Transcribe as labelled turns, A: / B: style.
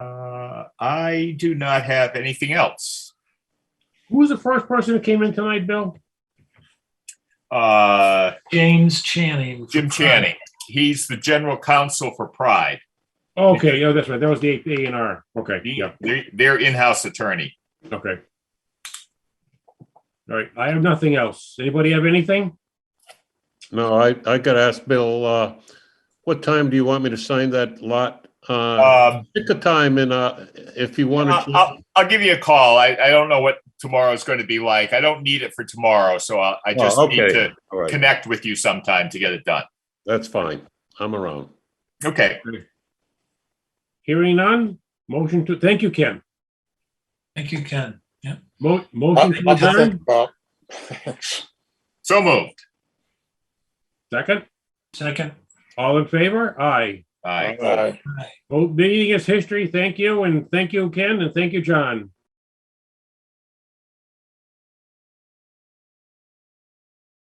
A: Uh, I do not have anything else.
B: Who was the first person who came in tonight, Bill?
A: Uh,
C: James Channing.
A: Jim Channing, he's the general counsel for Pride,
B: Okay, yeah, that's right. That was the A and R. Okay,
A: He-
B: yeah,
A: their, their in-house attorney.
B: okay. All right, I have nothing else. Anybody have anything?
D: No, I, I gotta ask Bill, uh, what time do you want me to sign that lot? Uh,
A: Um,
D: pick a time and, uh, if you want
A: I'll,
D: to.
A: I'll, I'll give you a call. I, I don't know what tomorrow's going to be like. I don't need it for tomorrow, so I, I just
D: Oh,
A: need
D: okay.
A: to
D: All right,
A: connect with you sometime to get it done.
D: that's fine. I'm around.
A: Okay.
B: Hearing none, motion to, thank you, Ken.
C: Thank you, Ken. Yeah.
B: Mo-
E: I'll-
B: Motion to
E: I'll just think
B: adjourn,
E: about-
A: So moved.
B: second.
C: Second.
B: All in favor? Aye.
A: Aye.
E: All right.
B: Vote meeting is history. Thank you, and thank you, Ken, and thank you, John.